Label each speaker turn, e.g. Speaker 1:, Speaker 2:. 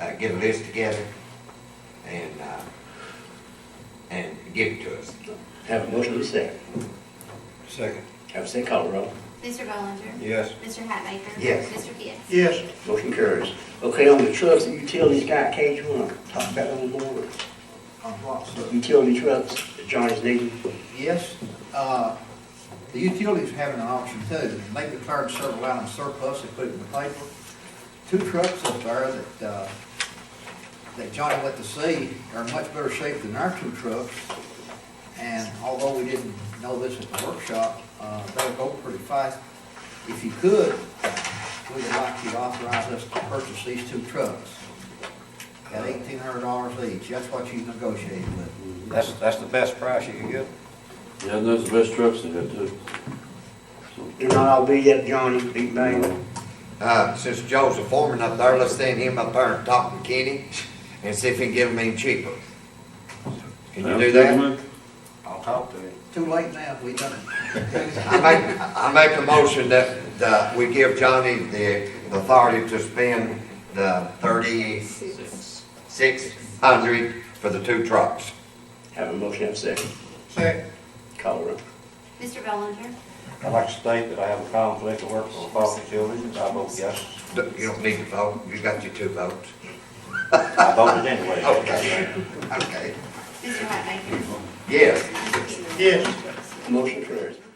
Speaker 1: uh, get a list together and, uh, and give it to us.
Speaker 2: Have a motion to second.
Speaker 3: Second.
Speaker 2: Have a second call, roll.
Speaker 4: Mr. Bollinger.
Speaker 3: Yes.
Speaker 4: Mr. Hatmaker?
Speaker 1: Yes.
Speaker 4: Mr. Pitts?
Speaker 3: Yes.
Speaker 2: Motion carries. Okay, on the trucks and utilities, Guy Cage, you wanna talk about on the board?
Speaker 5: On what, sir?
Speaker 2: Utility trucks, Johnny's needing.
Speaker 5: Yes, uh, the utilities having an auction too, and they declared several items surplus, they put it in the paper. Two trucks up there that, uh, that Johnny went to see are in much better shape than our two trucks. And although we didn't know this at the workshop, uh, they'll go pretty fast. If you could, we would like you to authorize us to purchase these two trucks at eighteen hundred dollars each, that's what you negotiated with.
Speaker 3: That's, that's the best price you can get.
Speaker 6: Yeah, and those are the best trucks they got too.
Speaker 2: They're not all beat up, Johnny, big bang.
Speaker 1: Uh, since Joe's a foreman up there, let's send him up there and talk to Kenny and see if he can get them any cheaper. Can you do that?
Speaker 3: I'll talk to him.
Speaker 5: Too late now, we done it.
Speaker 1: I make, I make a motion that, that we give Johnny the authority to spend the thirty-six hundred for the two trucks.
Speaker 2: Have a motion, have a second.
Speaker 3: Second.
Speaker 2: Call, roll.
Speaker 4: Mr. Bollinger.
Speaker 3: I'd like to state that I have a conflict of work for the foster children, I vote yes.
Speaker 1: You don't need to vote, you got your two votes.
Speaker 3: I voted anyway.
Speaker 1: Okay. Okay.
Speaker 4: Mr. Hatmaker?
Speaker 1: Yes.
Speaker 4: Mr. Pitts?
Speaker 3: Yes.
Speaker 2: Motion carries.